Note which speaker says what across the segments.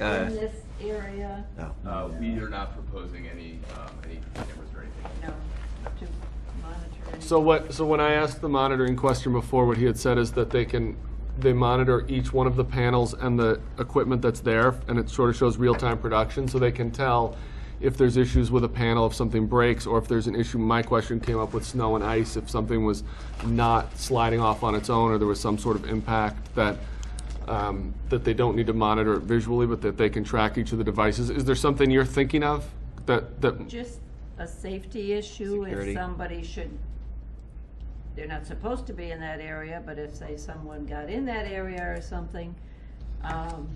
Speaker 1: Uh,
Speaker 2: in this area?
Speaker 3: No.
Speaker 4: Uh, we are not proposing any, um, any cameras or anything.
Speaker 2: No, to monitor. any-
Speaker 5: So what, so when I asked the monitoring question before, what he had said is that they can, they monitor each one of the panels and the equipment that's there, and it sort of shows real-time production, so they can tell if there's issues with a panel, if something breaks, or if there's an issue, my question came up with snow and ice, if something was not sliding off on its own, or there was some sort of impact that, um, that they don't need to monitor it visually, but that they can track each of the devices. Is there something you're thinking of that, that
Speaker 2: Just a safety issue
Speaker 3: Security.
Speaker 2: if somebody should, they're not supposed to be in that area, but if, say, someone got in that area or something, um,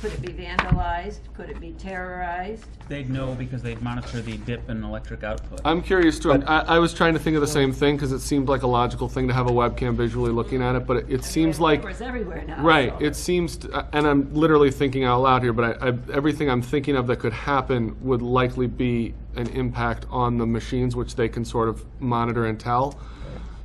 Speaker 2: could it be vandalized? Could it be terrorized?
Speaker 6: They'd know because they'd monitor the dip in electric output.
Speaker 5: I'm curious too. and I, I was trying to think of the same thing because it seemed like a logical thing to have a webcam visually looking at it, but it, it seems
Speaker 2: There are
Speaker 5: like
Speaker 2: cameras everywhere now.
Speaker 5: right.
Speaker 2: so-
Speaker 5: It seems, t- uh, and I'm literally thinking out loud here, but I, I, everything I'm thinking of that could happen would likely be an impact on the machines, which they can sort of monitor and tell.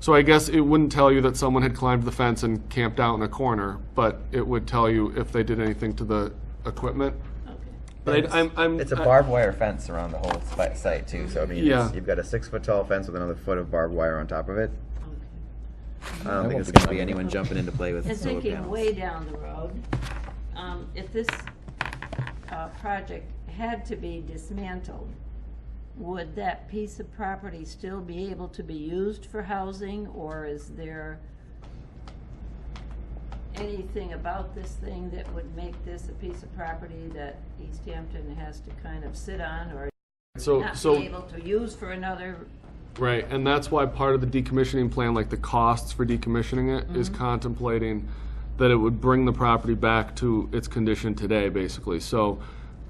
Speaker 5: So I guess it wouldn't tell you that someone had climbed the fence and camped out in a corner, but it would tell you if they did anything to the equipment.
Speaker 2: Okay.
Speaker 5: But I, I'm, I'm
Speaker 3: It's a
Speaker 5: I-
Speaker 3: barbed wire fence around the whole spi- site too, so I mean, it's-
Speaker 5: Yeah.
Speaker 7: You've got a six foot tall fence with another foot of barbed wire on top of it. Um,
Speaker 3: I don't think
Speaker 7: won't
Speaker 3: it's
Speaker 7: be
Speaker 3: gonna be
Speaker 7: climbing.
Speaker 3: anyone jumping in to play with
Speaker 2: And
Speaker 3: solar
Speaker 2: thinking way
Speaker 3: panels.
Speaker 2: down the road, um, if this, uh, project had to be dismantled, would that piece of property still be able to be used for housing, or is there anything about this thing that would make this a piece of property that East Hampton has to kind of sit on or
Speaker 5: so,
Speaker 2: not
Speaker 5: so
Speaker 2: be able to use for another
Speaker 5: Right, and that's why part of the decommissioning plan, like the costs for decommissioning it, is contemplating that it would bring the property back to its condition today, basically. So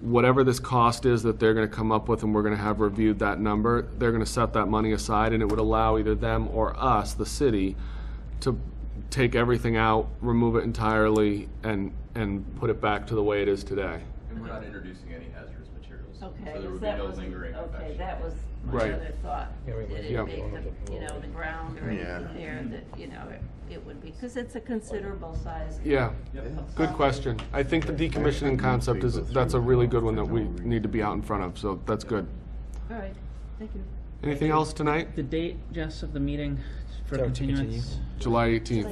Speaker 5: whatever this cost is that they're gonna come up with and we're gonna have reviewed that number, they're gonna set that money aside and it would allow either them or us, the city, to take everything out, remove it entirely, and, and put it back to the way it is today.
Speaker 4: And we're not introducing any hazardous materials.
Speaker 2: Okay,
Speaker 4: So there
Speaker 2: is
Speaker 4: would be
Speaker 2: that
Speaker 4: no
Speaker 2: was,
Speaker 4: lingering
Speaker 2: okay,
Speaker 4: effect.
Speaker 2: that was my
Speaker 5: Right.
Speaker 2: other thought. Did
Speaker 5: Yeah. Mm-hmm.
Speaker 2: it make the, you know, the ground or anything there that, you know, it- it would be, because it's a considerable size.
Speaker 5: Yeah, good question. I think the decommissioning concept is, that's a really good one that we need to be out in front of, so that's good.
Speaker 2: All right, thank you.
Speaker 5: Anything else tonight?
Speaker 6: The date, Jess, of the meeting for continuance?
Speaker 5: July 18th.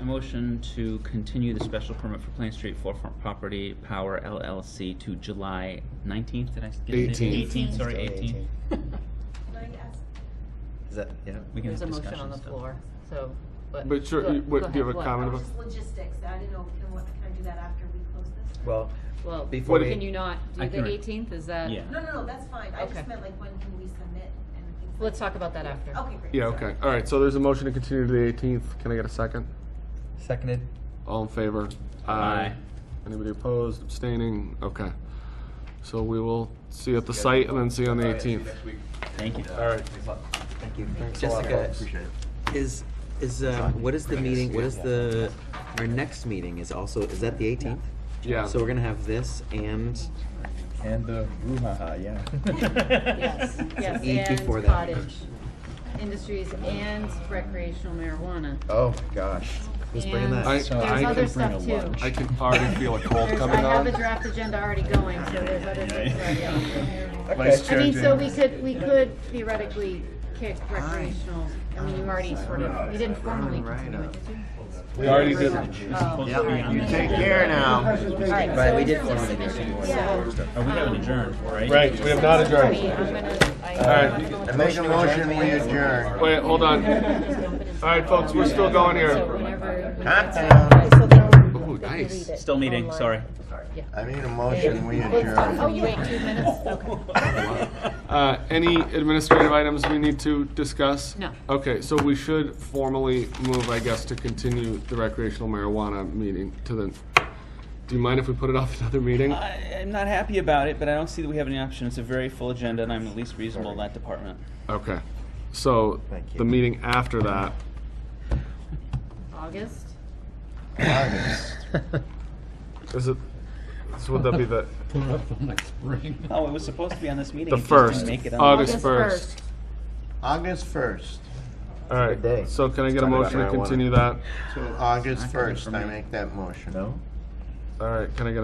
Speaker 6: A motion to continue the special permit for Plain Street Forefront Property Power LLC to July nineteenth, did I get it?
Speaker 5: 18th.
Speaker 6: Eighteenth, sorry, eighteenth.
Speaker 3: Is that, yeah?
Speaker 6: We can
Speaker 8: There's
Speaker 6: have
Speaker 8: a
Speaker 6: discussion
Speaker 8: motion on the
Speaker 6: still.
Speaker 8: floor, so, but.
Speaker 5: But sure,
Speaker 8: go-
Speaker 5: you-
Speaker 8: go
Speaker 5: what, do you
Speaker 8: ahead,
Speaker 5: have a
Speaker 8: what?
Speaker 5: comment about?
Speaker 9: Just logistics, I didn't know, can, what, can I do that after we close this?
Speaker 3: Well,
Speaker 8: Well,
Speaker 3: Before we-
Speaker 8: can you not
Speaker 6: I
Speaker 8: do
Speaker 6: can
Speaker 8: the
Speaker 6: re-
Speaker 8: eighteenth, is that?
Speaker 6: Yeah.
Speaker 9: No, no, no, that's fine, I
Speaker 8: Okay.
Speaker 9: just meant like, when can we submit and things like.
Speaker 8: Let's talk about that after.
Speaker 9: Okay, great.
Speaker 5: Yeah, okay. All right, so there's a motion to continue to the 18th. Can I get a second?
Speaker 3: seconded.
Speaker 5: All in favor?
Speaker 6: Aye.
Speaker 5: Anybody opposed, abstaining? Okay. So we will see you at the site and then see you on the
Speaker 4: Alright, see you
Speaker 5: 18th.
Speaker 4: Next week.
Speaker 6: Thank you.
Speaker 4: All right. Thanks a lot.
Speaker 3: Thank you.
Speaker 5: Thanks a lot,
Speaker 3: Jessica,
Speaker 5: folks.
Speaker 3: is, is, um, what is the meeting, what is the, our next meeting is also, is that the eighteenth?
Speaker 5: Yeah.
Speaker 3: So we're gonna have this and
Speaker 7: And the brouhaha, yeah.
Speaker 8: Yes, yes,
Speaker 3: eat before
Speaker 8: and
Speaker 3: that.
Speaker 8: cottage industries and recreational marijuana.
Speaker 7: Oh, gosh.
Speaker 3: who's bringing
Speaker 8: And
Speaker 3: that?
Speaker 5: I,
Speaker 8: There's
Speaker 5: Uh, I,
Speaker 8: other
Speaker 5: can,
Speaker 8: stuff too.
Speaker 5: I can already feel a cold
Speaker 8: There's, I
Speaker 5: coming
Speaker 8: have the
Speaker 5: on.
Speaker 8: draft agenda already going, so there's other things already out there.
Speaker 7: Okay.
Speaker 8: I mean, so we could, we could theoretically kick recreational, I mean, you already sort of, you didn't formally continue it, did you?
Speaker 5: We already did it.
Speaker 8: Oh,
Speaker 6: Yep.
Speaker 8: sorry.
Speaker 6: You
Speaker 7: Take care now.
Speaker 8: All right,
Speaker 3: Right,
Speaker 8: so
Speaker 3: we
Speaker 8: in
Speaker 3: did
Speaker 8: terms of
Speaker 3: formally do it.
Speaker 8: submission,
Speaker 3: Yeah.
Speaker 8: so,
Speaker 6: Oh, we
Speaker 8: um,
Speaker 6: haven't adjourned, right?
Speaker 5: Right, we have not adjourned.
Speaker 8: Wait, I'm gonna, I.
Speaker 5: right.
Speaker 8: I'm gonna-
Speaker 7: Make a motion, we adjourn.
Speaker 5: Wait, hold on. All right, folks, we're still going
Speaker 8: So
Speaker 5: here.
Speaker 8: whenever.
Speaker 7: Hot
Speaker 3: Oh,
Speaker 5: Ooh, nice.
Speaker 6: Still meeting, sorry.
Speaker 7: I made a motion, we
Speaker 8: Oh,
Speaker 7: adjourn.
Speaker 8: you wait two minutes, okay.
Speaker 5: Uh, Any administrative items we need to discuss?
Speaker 8: No.
Speaker 5: Okay, so we should formally move, I guess, to continue the recreational marijuana meeting to the, do you mind if we put it off another meeting?
Speaker 6: I, I'm not happy about it, but I don't see that we have any option. It's a very full agenda, and I'm the least reasonable in that department.
Speaker 5: Okay, so
Speaker 3: Thank you.
Speaker 5: the meeting after that,
Speaker 8: August?
Speaker 5: is it, so would that be the,
Speaker 10: Put it up till next spring.
Speaker 6: Oh, it was supposed to be on this meeting.
Speaker 5: the
Speaker 6: it just didn't
Speaker 5: first,
Speaker 6: make it on.
Speaker 5: August
Speaker 8: August
Speaker 5: first?
Speaker 7: August first,
Speaker 5: All
Speaker 3: day.
Speaker 5: right, so can I get a
Speaker 3: Talking about
Speaker 5: motion to
Speaker 3: marijuana.
Speaker 5: continue that?
Speaker 7: so August first, I make that motion.
Speaker 3: No?
Speaker 5: All right, can I get